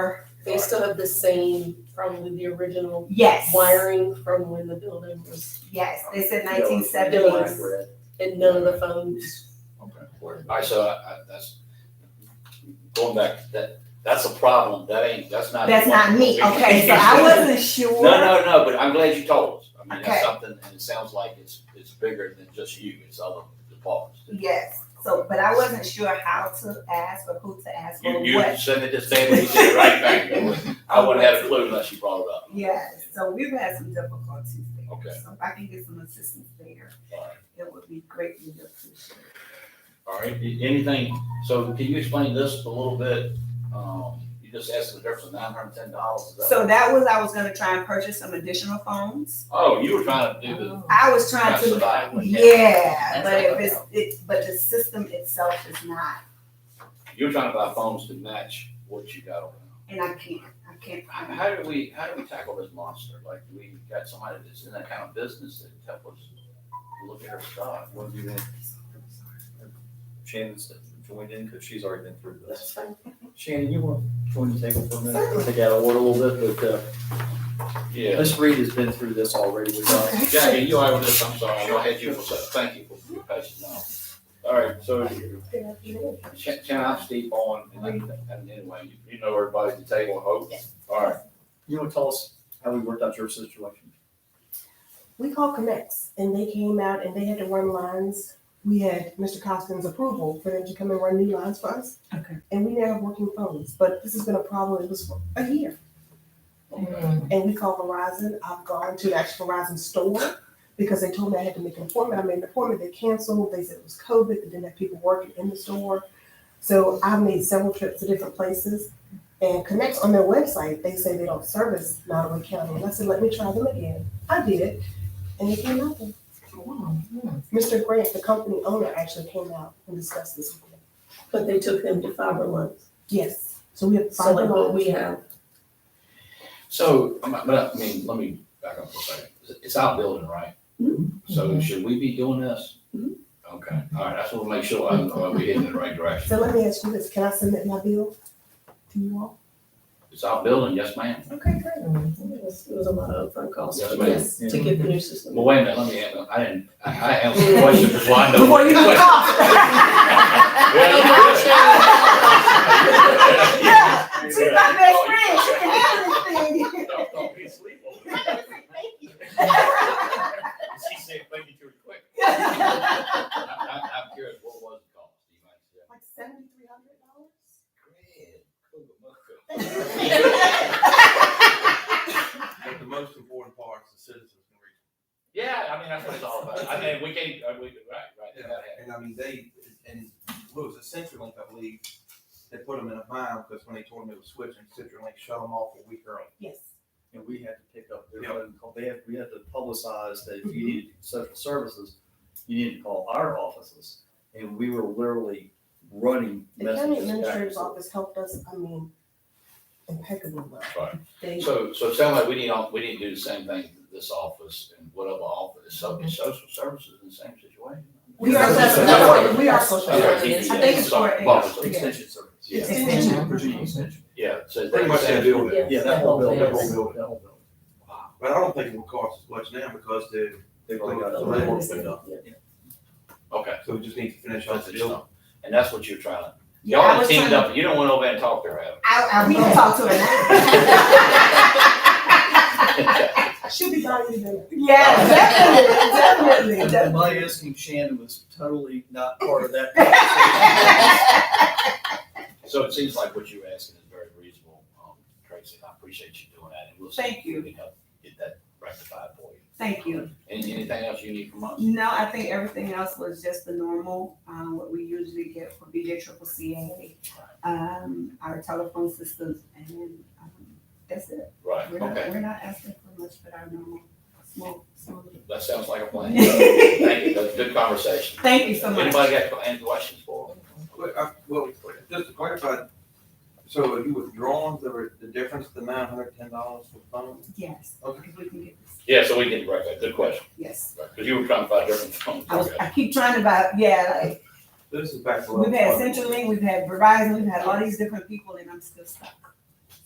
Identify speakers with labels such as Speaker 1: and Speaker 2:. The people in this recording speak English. Speaker 1: They still have the same, probably the original
Speaker 2: Yes.
Speaker 1: wiring from when the building was,
Speaker 2: Yes, they said
Speaker 3: Yeah,
Speaker 2: nineteen
Speaker 1: Billings.
Speaker 2: seventies.
Speaker 3: Okay.
Speaker 1: and none of the phones
Speaker 3: All
Speaker 1: were.
Speaker 3: right, so I, I, that's, going back, that, that's a problem, that ain't, that's not.
Speaker 2: That's not me, okay, so I wasn't
Speaker 3: No,
Speaker 2: sure.
Speaker 3: no, no, but I'm glad you told us, I mean,
Speaker 2: Okay.
Speaker 3: that's something, and it sounds like it's, it's bigger than just you, it's other departments.
Speaker 2: Yes, so, but I wasn't sure how to ask or who to ask or
Speaker 3: You, you
Speaker 2: what.
Speaker 3: send it to Stanley, he said it right back, I wouldn't have a clue unless you brought it up.
Speaker 2: Yes, so we've had some difficulties there.
Speaker 3: Okay.
Speaker 2: So if I can get some assistance there,
Speaker 3: All right.
Speaker 2: it would be greatly appreciated.
Speaker 3: All right, a- anything, so can you explain this a little bit? Um, you just asked the difference of nine hundred and ten dollars.
Speaker 2: So that was, I was gonna try and purchase some additional phones.
Speaker 3: Oh, you were trying to do the.
Speaker 2: I was trying
Speaker 3: trying to
Speaker 2: to,
Speaker 3: survive one.
Speaker 2: yeah, but
Speaker 3: That's
Speaker 2: if
Speaker 3: not
Speaker 2: it's, it, but the system itself is not,
Speaker 3: You were trying to buy phones to match what you got over there.
Speaker 2: and I can't, I can't.
Speaker 3: How-
Speaker 2: find it.
Speaker 3: How do we, how do we tackle this monster? Like, do we got somebody that's in that kind of business that help us look at our stock? What do you think?
Speaker 4: Shannon's joined in because she's already been through this.
Speaker 1: That's fine.
Speaker 4: Shannon, you want to join the table for a minute? Take out of order a little bit, but uh,
Speaker 3: Yeah.
Speaker 4: Ms. Reed has been through this already with us.
Speaker 3: Jackie, you all right with this? I'm sorry, I know I had you for a second. Thank you for your patience now. All right, so Ch- Can I Steve on, and I- and anyway, you- you know everybody at the table, I hope? All right,
Speaker 4: You want to tell us how we worked out your situation?
Speaker 5: We called Connects and they came out and they had to run lines. We had Mr. Costin's approval for them to come and run new lines for us.
Speaker 2: Okay.
Speaker 5: And we now have working phones, but this has been a problem. It was for a year. And we called Verizon. I've gone to the actual Verizon store because they told me I had to make an appointment. I made an appointment. They canceled. They said it was COVID. They didn't have people working in the store. So I've made several trips to different places. And Connects on their website, they say they don't service Nottaway County. And I said, let me try them again. I did. And they came out there. Mr. Grant, the company owner, actually came out and discussed this with me.
Speaker 1: But they took them to fiber lines,
Speaker 5: Yes. So we have
Speaker 1: so
Speaker 5: five
Speaker 1: like what we
Speaker 5: lines.
Speaker 1: have.
Speaker 3: so, I'm not- but I mean, let me back up for a second. It's- It's our building, right?
Speaker 2: Mm-hmm.
Speaker 3: So should we be doing this?
Speaker 1: Mhm.
Speaker 3: Okay, all right, I just want to make sure I know we're heading in the right
Speaker 5: So
Speaker 3: direction.
Speaker 5: let me ask you this, can I submit my bill to you all?
Speaker 3: It's our building, yes, ma'am.
Speaker 5: Okay, great.
Speaker 1: It was it was a lot of upfront costs,
Speaker 3: Yes,
Speaker 1: but
Speaker 3: ma'am.
Speaker 1: yes, to get the new system.
Speaker 3: Well, wait a minute, let me, ask- I didn't, I I answered the question before I know.
Speaker 5: Before you
Speaker 3: what-
Speaker 2: Yeah, she's
Speaker 3: Yeah.
Speaker 2: my best friend, she can handle this thing.
Speaker 3: Don't- don't be asleep on me. She said, thank you, too quick. I'm, I'm I'm curious, what was the cost? Do you mind sharing?
Speaker 5: Like seventy-three hundred dollars?
Speaker 6: But the most important part is the citizens can reach.
Speaker 3: Yeah, I mean, that's what it's all about. I mean, we can't, uh, we, right, right, they gotta have-
Speaker 6: And I mean, they, and what was it, CenturyLink, I believe, they put them in a bind because when they told them it was switching, CenturyLink shut them off a week early.
Speaker 5: Yes.
Speaker 4: And we had to pick up their
Speaker 6: Yeah.
Speaker 4: phone call. They had, we had to publicize that if you needed social services, you needed to call our offices. And we were literally running
Speaker 5: The
Speaker 4: messages.
Speaker 5: county
Speaker 4: back and
Speaker 5: administrator's
Speaker 4: forth.
Speaker 5: office helped us, I mean, impeccably well.
Speaker 3: Right.
Speaker 5: They,
Speaker 3: So, so it sounds like we need, all- we need to do the same thing, to this office and whatever office, so, is social services in the same situation.
Speaker 5: we are,
Speaker 3: That's
Speaker 5: social-
Speaker 3: what-
Speaker 5: no, we are social.
Speaker 3: I'm sorry,
Speaker 5: service.
Speaker 3: TDS,
Speaker 2: I think it's
Speaker 3: sorry,
Speaker 2: for-
Speaker 3: apologies.
Speaker 4: Extension service.
Speaker 3: Yeah.
Speaker 5: Extension.
Speaker 4: Virginia Extension.
Speaker 3: Yeah, so.
Speaker 6: Pretty much that building.
Speaker 1: Yes.
Speaker 4: Yeah, that whole building, that whole
Speaker 6: Yes.
Speaker 4: building, that whole building.
Speaker 3: Wow.
Speaker 6: But I don't think it will cost as much now because they,
Speaker 4: They've already got.
Speaker 6: So
Speaker 4: it.
Speaker 6: they won't pick up.
Speaker 3: Okay.
Speaker 6: So we just need to finish off
Speaker 3: That's
Speaker 6: the
Speaker 3: it,
Speaker 6: deal.
Speaker 3: so. And that's what you're trying, to-
Speaker 2: Yeah,
Speaker 3: y'all
Speaker 2: I
Speaker 3: are
Speaker 2: was
Speaker 3: teamed
Speaker 2: trying to-
Speaker 3: up, you don't want to over there and talk to her. Adam.
Speaker 2: I, I, we can talk to her now.
Speaker 5: She'll be buying you dinner.
Speaker 2: Yeah, definitely, definitely,
Speaker 4: And my
Speaker 2: definitely.
Speaker 4: asking Shannon was totally not part of that. conversation.
Speaker 3: So it seems like what you're asking is very reasonable, um, Tracy, and I appreciate you doing that, and we'll see.
Speaker 2: Thank
Speaker 3: if we
Speaker 2: you.
Speaker 3: can help Get that rectified for you.
Speaker 2: Thank you.
Speaker 3: Any, anything else you need from us?
Speaker 2: No, I think everything else was just the normal, um, what we usually get for BJ Triple CA, um, our telephone systems, and, um, that's it.
Speaker 3: Right,
Speaker 2: We're not,
Speaker 3: okay,
Speaker 2: we're not asking for much, but our normal, small, small.
Speaker 3: that sounds like a plan. Thank you,
Speaker 2: Thank
Speaker 3: that's a good conversation.
Speaker 2: you so much.
Speaker 3: Anybody got any questions for them?
Speaker 6: But, uh, well, just to clarify, so if you withdrawn the, the difference, the nine hundred ten dollars for phone?
Speaker 2: Yes,
Speaker 6: Okay.
Speaker 2: if we can get this,
Speaker 3: Yeah, so we can direct that, good question,
Speaker 2: yes.
Speaker 3: because you were trying to find different phones.
Speaker 2: I was, I keep trying to buy, yeah, like,
Speaker 6: This is back to.
Speaker 2: We've had CenturyLink, we've had Verizon, we've had all these different people, and I'm still stuck.